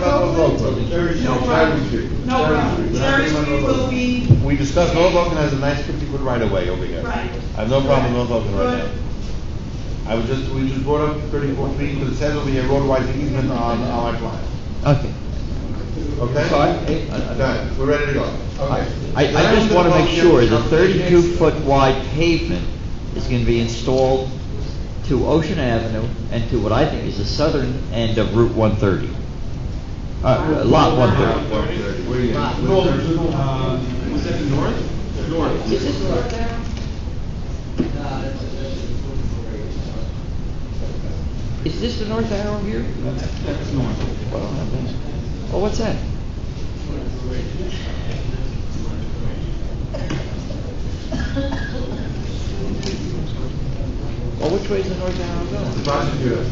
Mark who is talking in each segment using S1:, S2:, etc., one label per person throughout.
S1: vote, brother.
S2: Cherry
S3: No
S2: Street.
S3: problem.
S2: Cherry Street.
S3: No
S2: Cherry
S3: problem.
S2: Street.
S3: Cherry
S2: Not
S3: Street
S2: even
S3: will
S2: another.
S3: be.
S1: We discussed North Oakland has a nice fifty foot right of way over here.
S3: Right.
S1: I have no problem with North Oakland right
S3: Good.
S1: now. I was just, we just brought up thirty-four feet, because it says over here roadwise easement on, on our plan.
S4: Okay.
S1: Okay? Uh,
S4: So I-
S1: Done, we're ready to go.
S4: I,
S2: Okay.
S4: I
S1: Now
S4: just
S1: we're
S4: want to
S1: gonna
S4: make
S1: vote
S4: sure
S1: here.
S4: the thirty-two foot wide pavement is going to be installed to Ocean Avenue and to what I think is the southern end of Route one thirty. Uh, Lot one thirty.
S1: Where you at?
S2: North.
S5: Uh, was that north? North.
S6: Is this right there?
S4: Is this the north arrow here?
S5: That's, that's north.
S4: Oh, what's that? Well, which way is the north arrow
S1: The
S4: going?
S1: prosecutor.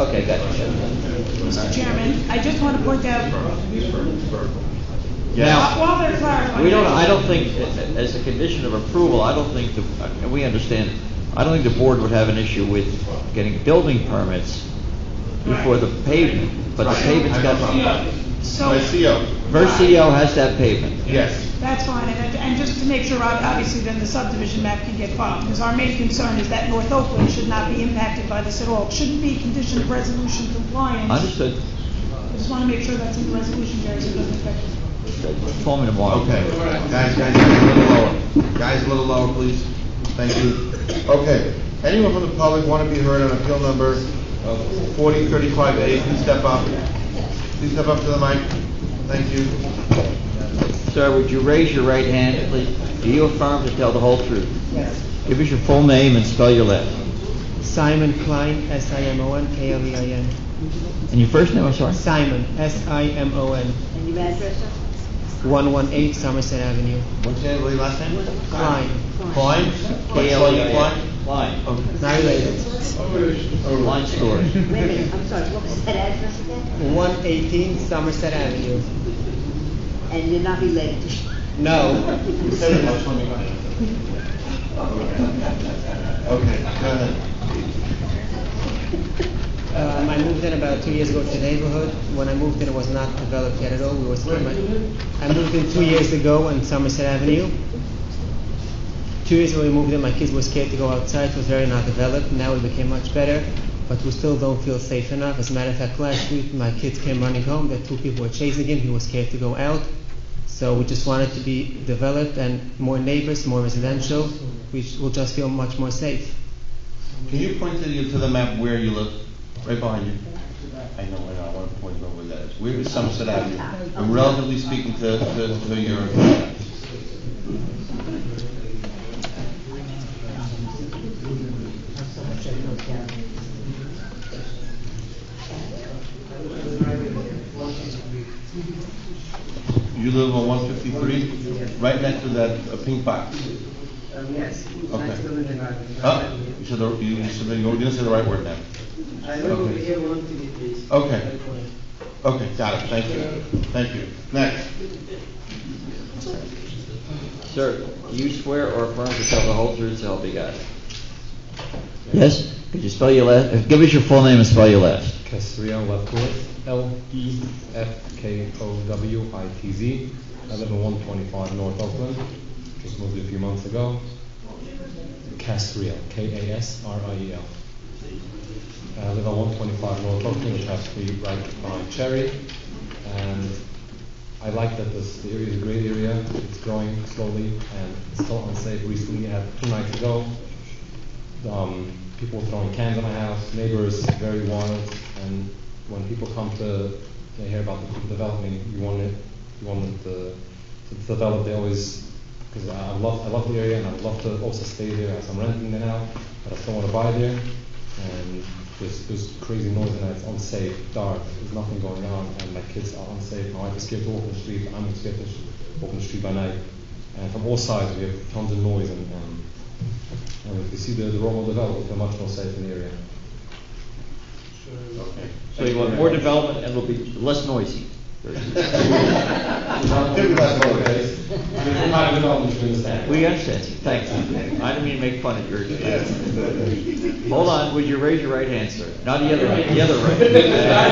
S4: Okay, gotcha.
S3: Mr. Chairman, I just want to point out,
S4: Now,
S3: while they're clarifying.
S4: We don't, I don't think, as a condition of approval, I don't think, the and we understand, I don't think the board would have an issue with getting building permits before the pavement, but the
S1: Right.
S4: pavement's got,
S3: Yeah, So,
S1: My CO,
S4: Versio has that pavement.
S1: yes.
S3: that's fine, and, and just to make sure, ob- obviously, then the subdivision map can get filed, because our main concern is that North Oakland should not be impacted by this at all. It shouldn't be conditioned of resolution compliance.
S4: Understood,
S3: I just want to make sure that's in the resolution, Jerry, so it doesn't affect us.
S4: call me tomorrow.
S1: Okay, guys, guys, guys, a little lower. Guys, a little lower, please. Thank you. Okay, anyone from the public want to be heard on appeal number uh, forty thirty-five A, please step up. Please step up to the mic. Thank you.
S4: Sir, would you raise your right hand, please? Do you affirm to tell the whole truth?
S6: Yes.
S4: Give us your full name and spell your last.
S6: Simon Klein, S-I-M-O-N-K-L-E-I-N.
S4: And your first name, I'm sorry?
S6: E Simon, S-I-M-O-N,
S7: And your address, sir?
S6: 118 Somerset Avenue.
S1: What's your name, what your last name?
S6: Klein,
S1: Klein? E Klein,
S4: E
S1: Klein?
S4: Klein.
S1: Okay.
S6: not related.
S4: Klein Stores.
S7: Wait a minute, I'm sorry, what was that address again?
S6: 118 Somerset Avenue.
S7: And you're not related to
S6: No,
S1: Okay, go ahead.
S6: Um, I moved in about two years ago to the neighborhood. When I moved in, it was not developed yet at all. We were still. I moved in two years ago on Somerset Avenue. Two years ago, we moved in. My kids were scared to go outside. It was very not developed. Now it became much better, but we still don't feel safe enough. As a matter of fact, last week my kids came running home. That two people were chasing him. He was scared to go out. So we just want it to be developed and more neighbors, more residential. We sh- will just feel much more safe.
S1: Can you point to the, to the map where you live? Right behind you. I know, I know, I want to point out where that is. Where is Somerset Avenue? I'm relatively speaking to, to, to your. You live on one fifty-three, right next to that uh, pink box.
S8: Um, yes,
S1: Okay. Ah.
S8: I still live in Ireland.
S1: Huh? You said, the- you you said, the- you didn't say the right word now.
S8: I live over
S1: Okay.
S8: here, one to be, please.
S1: Okay. Okay, got it, thank you, thank you. Next.
S4: Sir, do you swear or affirm to tell the whole truth, so help you God? Yes, could you spell your last, uh, give us your full name and spell your last.
S9: Castrillo Lefkowitz, E L-E-F-K-O-W-I-T-Z. I live in 125 North Oakland, just moved here a few months ago. Castrillo, K-A-S-R-I-E-L. I live on 125 North Oakland, which has to be right behind Cherry. And I like that this the area is a great area, it's growing slowly and it's still unsafe. Recently, had two nights ago, um, people throwing cans in my house, neighbors very wild, and when people come to, they hear about the development, you want it, you want it to, to develop, they always, because I I love, I love the area, and I'd love to also stay there, as I'm renting there now, but I still want to buy there, and there's, there's crazy noise, and it's unsafe, dark, there's nothing going on, and my kids are unsafe, my wife is scared to walk in the street, I'm scared to sh- walk in the street by night, and from all sides, we have tons of noise, and, and and if you see the, the Romo developed, they're much more safe in the area.
S4: So you want more development and it'll be less noisy.
S1: Give me that one, guys.
S9: There's not a development, you understand?
S4: We understand, you. thank you. I didn't mean to make fun of your expense. Hold on, would you raise your right hand, sir? Not the other, hand, the other right.